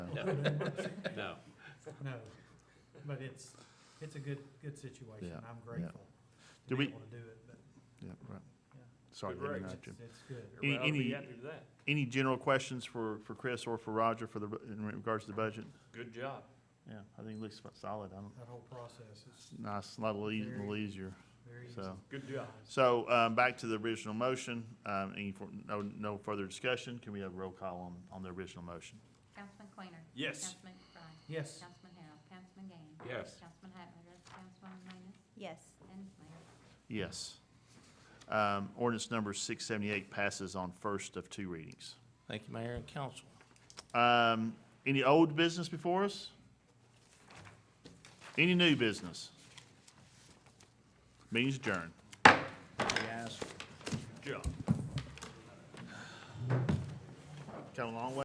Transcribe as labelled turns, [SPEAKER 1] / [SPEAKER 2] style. [SPEAKER 1] No.
[SPEAKER 2] put in much.
[SPEAKER 1] No.
[SPEAKER 2] No, but it's, it's a good, good situation.
[SPEAKER 3] Yeah,
[SPEAKER 2] I'm grateful to
[SPEAKER 3] Do
[SPEAKER 2] be
[SPEAKER 3] we-
[SPEAKER 2] able to do it, but
[SPEAKER 3] Yeah, right.
[SPEAKER 2] Yeah.
[SPEAKER 3] Sorry,
[SPEAKER 4] Good
[SPEAKER 3] didn't
[SPEAKER 4] rates.
[SPEAKER 3] interrupt you.
[SPEAKER 2] it's, it's good.
[SPEAKER 3] Any-
[SPEAKER 4] I'll
[SPEAKER 3] any-
[SPEAKER 4] be happy with that.
[SPEAKER 3] Any general questions for, for Chris or for Roger for the, in regards to the budget?
[SPEAKER 4] Good job.
[SPEAKER 3] Yeah, I think it looks solid. I don't,
[SPEAKER 2] That whole process is
[SPEAKER 3] it's nice, a lot little eas- little easier,
[SPEAKER 2] very easy.
[SPEAKER 3] so.
[SPEAKER 4] Good job.
[SPEAKER 3] So, um, back to the original motion, um, any, for- no, no further discussion, can we have roll call on, on the original motion?
[SPEAKER 5] Councilman Quainer.
[SPEAKER 4] Yes.
[SPEAKER 5] Councilman McBride.
[SPEAKER 2] Yes,
[SPEAKER 5] Councilman Harrell. Councilman Gann.
[SPEAKER 1] Yes.
[SPEAKER 5] Councilman Hatmaker. Councilwoman Manis.
[SPEAKER 6] Yes.
[SPEAKER 5] And Mayor.
[SPEAKER 3] Yes. Um, ordinance number six seventy-eight passes on first of two readings.
[SPEAKER 7] Thank you, Mayor and Council.
[SPEAKER 3] Um, any old business before us? Any new business? Meeting's adjourned.
[SPEAKER 7] Yes.
[SPEAKER 4] Good job.
[SPEAKER 3] Come a long way.